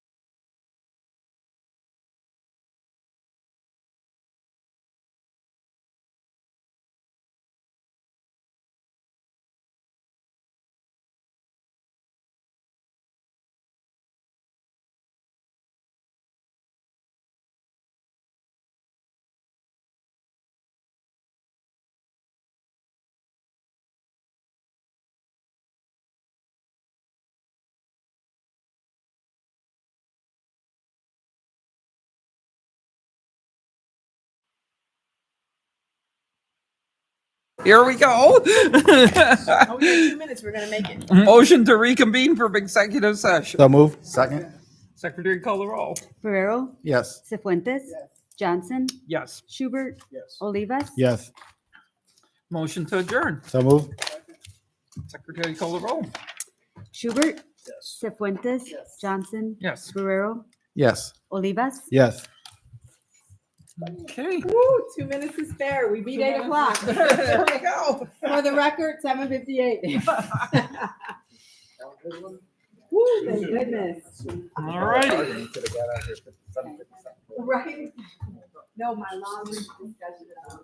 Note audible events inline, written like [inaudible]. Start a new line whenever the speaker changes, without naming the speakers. Here we [laughs] go.
Oh, we got two minutes. We're gonna make it.
Motion to reconvene from executive session.
So move.
Second?
Secretary call the roll.
Ferrero,
Yes.
Cefuentes, Johnson,
Yes.
Schubert, Olivas.
Yes.
Motion to adjourn.
So move.
Secretary call the roll.
Schubert, Cefuentes, Johnson,
Yes.
Ferrero,
Yes.
Olivas.
Yes.
Okay. [laughs]
Woo, two minutes is fair. We beat eight o'clock.
There
[laughs]
we go.
For the record, seven fifty-eight. Woo, thank goodness.
All righty.
Right? No, my long discussion.